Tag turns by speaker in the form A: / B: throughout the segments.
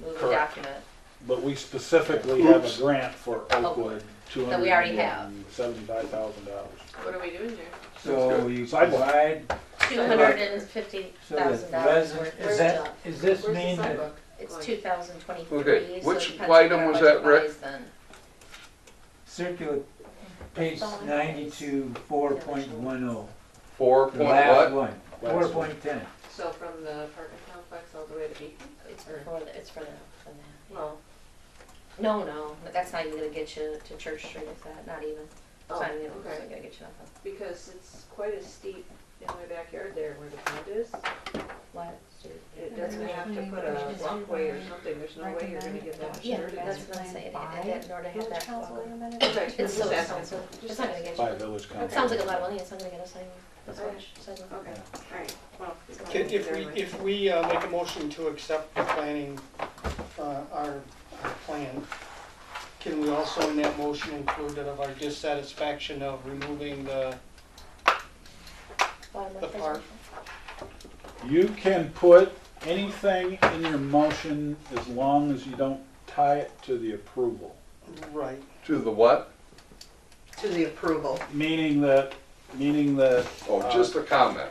A: the
B: Correct.
A: document.
B: But we specifically have
C: Oops.
B: a grant for Oakwood, two
A: That we
B: hundred
A: Oh, already
B: and seventy-five thousand dollars.
D: What are we doing here?
E: So you
B: Sidewalk.
E: provide,
A: Two hundred and fifty
E: so
A: thousand
E: that
A: dollars
E: residents,
A: worth
E: is
A: of
E: that,
A: junk.
E: is this
D: Where's the
E: mean that
D: sidewalk?
A: It's
D: going?
A: two thousand twenty-three,
C: Okay,
A: so
C: which
A: it depends
C: item
A: on
C: was
A: budget
C: that, Rick?
A: wise then.
E: circular page ninety-two, four point one oh?
C: Four
E: The
C: point what?
E: last one,
B: Last
E: four
B: one.
E: point ten.
D: So from the apartment complex all the way to Beacon?
A: It's
D: Or-
A: for, the- it's for the, for the,
D: No.
A: no, no, but that's not even gonna get you to Church Street, is that, not even. It's
D: Oh,
A: not even, it's
D: okay.
A: not gonna get you nothing.
D: Because it's quite a steep in my backyard there where the pond is.
A: What?
D: It doesn't have to put a walkway or something. There's no way you're gonna get that much
A: Yeah,
D: dirt in
A: that's
D: there.
A: what I'm saying, it, it, in order to have that. level.
D: Okay, I'm
A: It's so
D: just asking.
A: expensive, it's not gonna get
B: By
A: you,
B: Village
A: it
B: Council.
A: sounds like a lot of money, it's not gonna get us anywhere, that's
D: Okay.
A: much, so.
D: Okay, all right. Well, it's not-
F: If if we,
D: never mind.
F: if we uh, make a motion to accept the planning, uh, our our plan, can we also in that motion include that of our dissatisfaction of removing the,
A: Bottom
F: The
A: up is-
F: park.
B: You can put anything in your motion as long as you don't tie it to the approval.
F: right,
C: To the what?
G: To the approval.
B: Meaning that, meaning that,
C: Oh, just a comment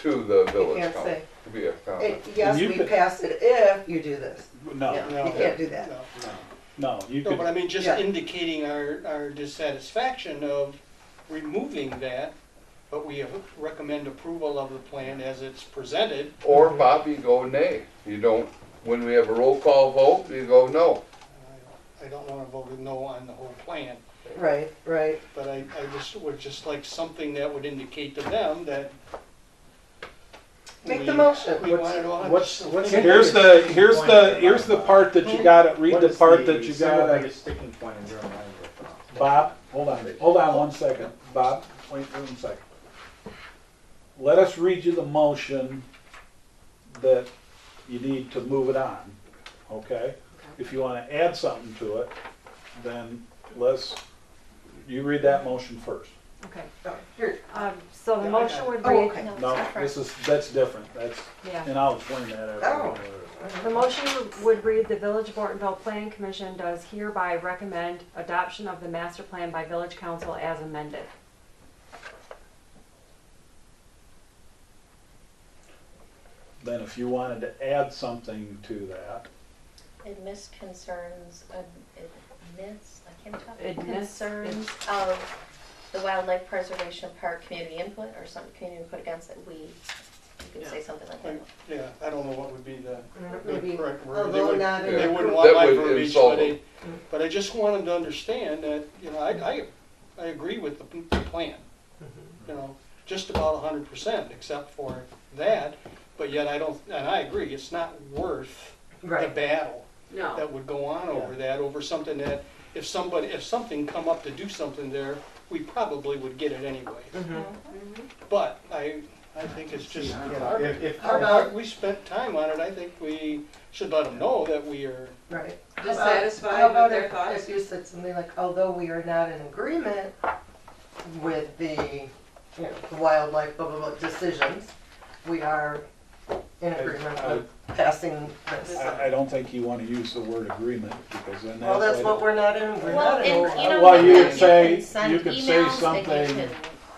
C: to the
G: You
C: village
G: can't
C: council.
G: say,
C: To be a comment.
G: "Eh, yes,
B: You
G: we
B: could-
G: pass it if you do this.
B: no,
G: No, you
F: No.
G: can't do that.
F: no.
B: no, you
F: No, but
B: could,
F: I mean, just
G: Yeah.
F: indicating our, our dissatisfaction of removing that, but we recommend approval of the plan as it's presented.
C: Or Bobby, go nay. You don't, when we have a roll call vote, you go no.
F: I don't wanna vote no on the whole plan.
G: Right, right.
F: But I, I just would just like something that would indicate to them that.
G: Make the
F: we-
G: motion.
F: We wanted all.
B: what's, what's,
H: Can-
B: here's the, here's the, here's the part that you got, read
H: What
B: the
H: is
B: part that you
H: single
B: got.
H: biggest sticking point in your mind right now?
B: Bob, hold on, hold on one second, Bob, wait one second. Let us read you the motion that you need to move it on, okay? If you wanna add something to it, then let's, you read that motion first.
I: Okay,
G: Oh, Here,
I: um, so the
F: Yeah, I got
I: motion
F: it.
I: would
G: Oh,
I: read,
G: okay.
A: No, it's
B: No,
A: not for,
B: this is, that's different, that's,
I: yeah,
B: and I'll explain that
G: Oh.
B: after.
I: the motion would read, the Village of Ortonville Planning Commission does hereby recommend adoption of the master plan by Village Council as amended.
B: Then if you wanted to add something to that,
A: admits concerns, ad- admits, I can't talk.
I: Admits,
A: Concerns of the wildlife preservation park community input or some community input against it, we, you could say something like that.
F: Like, Yeah, I don't know what would be the the
G: Maybe
F: correct word. They
G: Although
F: would-
G: not
C: Yeah.
F: They
G: in,
F: wouldn't want
C: That
F: my
C: would
F: verbiage,
C: insult
F: but I,
C: them.
F: but I just want them to understand that, you know, I, I, I agree with the p- the plan. You know, just about a hundred percent, except for that, but yet I don't, and I agree, it's not worth the
G: right.
F: battle
D: No,
F: that would go on over that, over something that, if somebody, if something come up to do something there, we probably would get it anyway.
G: Mhm.
F: But I, I think it's just,
H: See, I don't
F: you
H: know.
F: know,
H: If- if-
G: How about-
F: we spent time on it, I think we should let them know that we are,
G: Right. How about-
D: dissatisfied
G: how about
D: with their
G: if-
D: thoughts?
G: If you said something like, although we are not in agreement with the, you know, the wildlife, blah, blah, blah, decisions, we are in agreement with passing this.
B: I, I don't think you wanna use the word agreement, because then that's.
G: Well, that's
B: like-
G: what we're not in, we're
A: Well,
G: not in.
A: and you know,
B: Well, you
A: nothing,
B: could say-
A: can send
B: you could say
A: emails and you
B: something-
A: can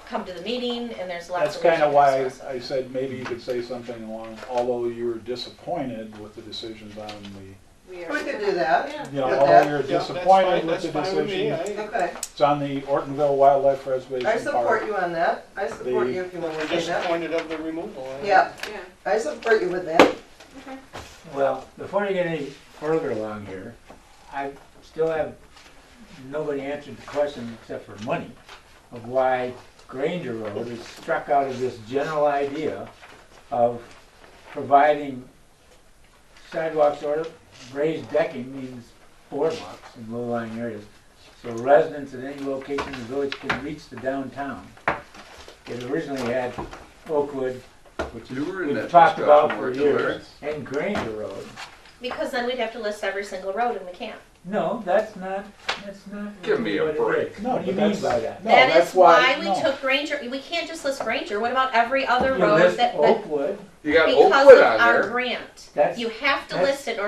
A: come to the meeting and there's lots
B: That's
A: of.
B: kind of why
A: resources.
B: I said maybe you could say something along, although you were disappointed with the decisions on the,
D: we
G: We
D: are.
G: could do that,
D: Yeah.
B: you know,
G: Yeah,
B: although you're
F: Yeah, that's fine-
B: disappointed with
F: that's
B: the
F: fine with me,
B: decision.
F: I-
G: okay.
B: It's on the Ortonville Wildlife Preservation
G: I
B: Park.
G: support you on that. I support
B: The-
G: you if you want
F: We're
G: to say that.
F: disappointed of the removal. I-
G: Yeah,
D: Yeah.
G: I support you with that.
E: Well, before you get any further along here, I still have, nobody answered the question except for money of why Granger Road is struck out of this general idea of providing sidewalks or raised decking means boardwalks in low-lying areas. So residents at any location in the village can reach the downtown. It originally had Oakwood, which
C: You were in that
E: we've talked
C: discussion,
E: about for
C: weren't you, Larry?
E: years, and Granger Road.
A: Because then we'd have to list every single road and we can't.
E: No, that's not, that's not.
C: Give me a
E: what it
C: break.
E: is.
B: No,
E: What do you
B: but
E: mean by
B: that's-
E: that?
B: No,
A: That is
B: that's why-
A: why we
B: no.
A: took Granger, we can't just list Granger, what about every other
E: You
A: road
E: list
A: that, that,
E: Oakwood,
C: You got
A: because
C: Oakwood
A: of
C: on
A: our
C: there.
A: grant?
E: That's-
A: You have to
E: that's-
A: list it or